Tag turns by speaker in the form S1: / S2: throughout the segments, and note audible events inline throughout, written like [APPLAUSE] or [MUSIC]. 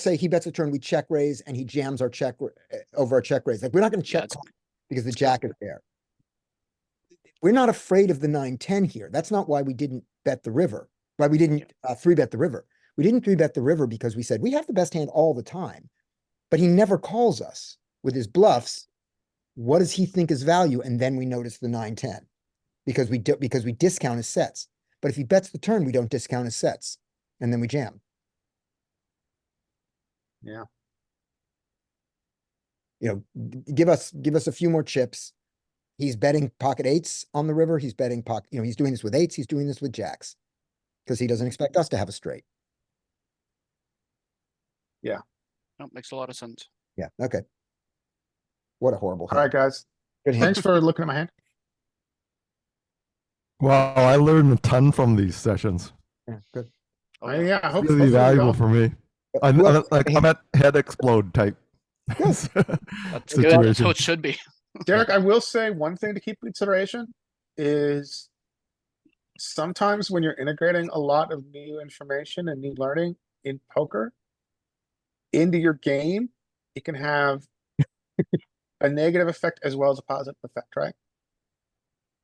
S1: say he bets a turn, we check raise and he jams our check ra- eh, over our check raise. Like we're not gonna
S2: Yeah,
S1: check call because the jack is there. We're not afraid of the nine, ten here. That's not why we didn't bet the river, why we didn't uh, three bet the river. We didn't three bet the river because we said we have the best hand all the time, but he never calls us with his bluffs. What does he think is value? And then we notice the nine, ten because we do, because we discount his sets. But if he bets the turn, we don't discount his sets and then we jam. you know, g- give us, give us a few more chips. He's betting pocket eights on the river. He's betting pocket, you know, he's doing this with eights. He's doing this with jacks. Cause he doesn't expect us to have a straight.
S2: that makes a lot of sense.
S1: Yeah, okay. What a horrible.
S3: All right,
S1: hand.
S3: guys.
S1: Good hand.
S3: Thanks for looking at my hand.
S4: Wow, I learned a ton from these sessions.
S1: Yeah, Good.
S2: Oh,
S3: Uh, yeah, I hope
S4: Really
S3: hopefully we
S4: valuable
S3: all-
S4: for me.
S1: Uh,
S4: I,
S1: who
S4: I,
S1: else-
S4: like I'm at head explode
S2: [LAUGHS]
S4: type [LAUGHS]
S1: Yes.
S2: That's good. That's
S4: situation.
S2: how it should be.
S3: Derek, I will say one thing to keep in consideration is sometimes when you're integrating a lot of new information and new learning in poker into your game, it can have a negative effect as well as a positive effect, right?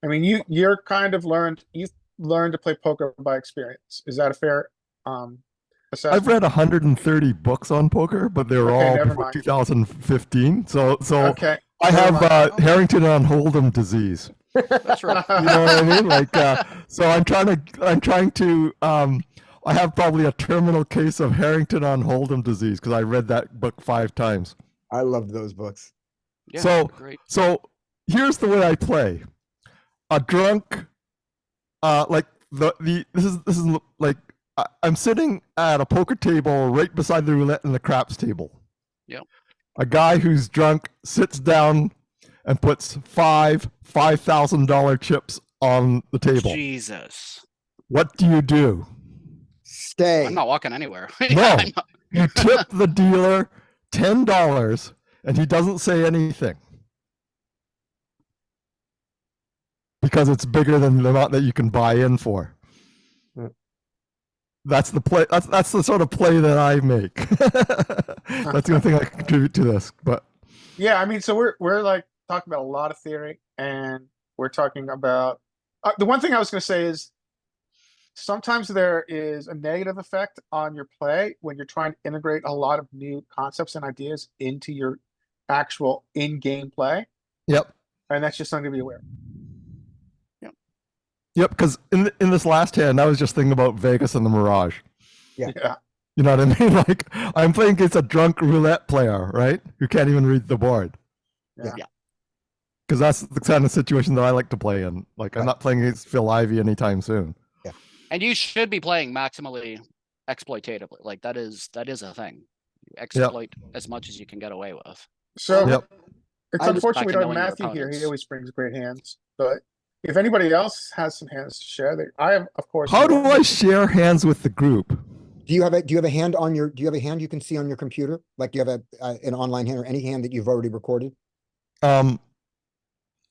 S3: I mean, you you're kind of learned you've learned to play poker by experience. Is that a fair um
S2: uh,
S3: assessment?
S4: I've read 130 books on poker, but they're
S3: Okay,
S4: all
S3: never
S4: before
S3: mind.
S4: 2015. So, so
S3: Okay.
S4: I
S3: never
S4: have
S3: mind.
S4: uh, Harrington on Hold'em disease.
S2: That's right.
S3: [LAUGHS]
S4: You know what I mean? Like, uh, so I'm trying to, I'm trying to, um, I have probably a terminal case of Harrington on Hold'em disease because I read that book five times.
S1: I loved those books.
S2: Yeah,
S4: So-
S2: great.
S4: So here's the way I play. A drunk, uh, like the the this is this is l- like I, I'm sitting at a poker table right beside the roulette and the craps table.
S2: Yep.
S4: A guy who's drunk sits down and puts five five thousand dollar chips on the table.
S2: Jesus.
S4: What do you do?
S1: Stay.
S2: I'm not walking anywhere. [LAUGHS] Yeah,
S4: No.
S2: I'm not-
S4: You tip the dealer ten dollars, and he doesn't say anything because it's bigger than the amount that you can buy in for.
S1: Yeah.
S4: That's the play. That's that's the sort of play that I make. [LAUGHS] that's the only thing I can contribute to this. But
S3: Yeah, I mean, so we're we're like talking about a lot of theory, and we're talking about uh, the one thing I was going to say is sometimes there is a negative effect on your play when you're trying to integrate a lot of new concepts and ideas into your actual in-game play,
S4: yep,
S3: and that's just something to be aware. of.
S4: yep. Because in th- in this last hand, I was just thinking about Vegas and the Mirage.
S1: Yeah.
S3: Yeah,
S4: You know what I mean? [LAUGHS] Like I'm playing against a drunk roulette player, right? Who can't even read the board.
S3: Yeah.
S2: Yeah.
S4: Because that's the kind of situation that I like to play in. Like I'm
S1: Right.
S4: not playing against Phil Ivey anytime soon.
S2: And you should be playing maximally exploitatively. Like that is that is a thing. You exploit as much as you can get away with.
S3: So
S4: Yep.
S3: it's
S2: I was
S3: unfortunate we
S2: back in
S3: don't
S2: knowing your
S3: have Matthew here. He
S2: opponents.
S3: always brings great hands, but if anybody else has some hands to share, they, I have, of course.
S4: How do
S3: more.
S4: I share hands with the group?
S1: Do you have a, do you have a hand on your, do you have a hand you can see on your computer? Like do you have a, uh, an online hand or any hand that you've already recorded?
S4: Um,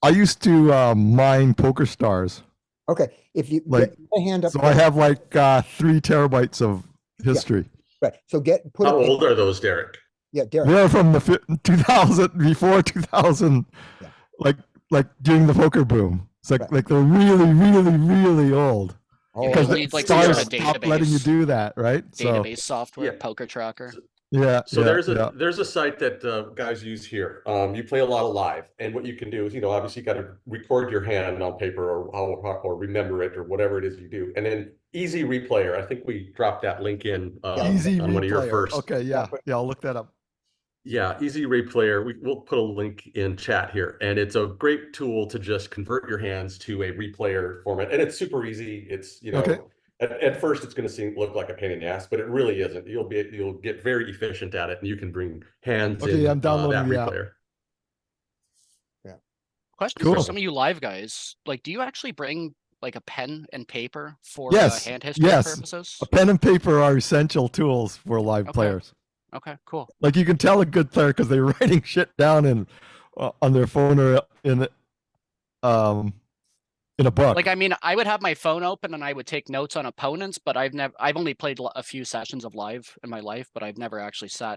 S4: I used to uh, mine Poker Stars,
S1: Okay, if you
S4: Like,
S1: get a hand up.
S4: so I
S1: there-
S4: have like uh, three terabytes of history.
S1: Right, so get, put,
S5: How
S1: it in-
S5: old are those, Derek?
S1: yeah, Derek,
S4: They're from the fi- 2000 before 2000,
S1: Yeah.
S4: like like during the poker boom. It's like
S1: Right.
S4: like they're really really really old
S1: Oh,
S2: Because
S4: because
S2: you
S4: the
S2: need, like, some sort
S4: stars
S2: of
S4: stopped letting you
S2: database-
S4: do that, right?
S2: Database software,
S5: Yeah.
S2: poker tracker.
S4: So yeah.
S5: So
S4: yeah,
S5: there's a
S4: yeah.
S5: there's a site that uh, guys use here. Um, you play a lot of live, and what you can do is, you know, obviously you got to record your hand on paper or how- how- or remember it or whatever it is you do, and then Easy Replayer. I think we dropped that link in uh,
S4: Easy
S5: on one of your
S4: replayer.
S5: first.
S4: Okay, yeah, yeah. I'll look that up.
S5: Yeah, Easy Replayer. We, we'll put a link in chat here, and it's a great tool to just convert your hands to a replayer format, and it's super easy. It's you know,
S4: Okay.
S5: at, at first it's going to seem look like a pain in the ass, but it really isn't. You'll be you'll get very efficient at it, and you can bring hands
S4: Okay, I'm
S5: in uh, that
S4: downloading the app.
S5: replayer.
S2: Question for
S4: Cool.
S2: some of you live guys. Like, do you actually bring like a pen and paper for
S4: Yes,
S2: uh, hand history
S4: yes.
S2: purposes?
S4: A pen and paper are essential tools for live
S2: Okay.
S4: players.
S2: Okay, cool.
S4: Like you can tell a good player because they're [LAUGHS] writing shit down in uh, on their phone or in um in a book.
S2: Like, I mean, I would have my phone open and I would take notes on opponents, but I've never, I've only played li- a few sessions of live in my life, but I've never actually sat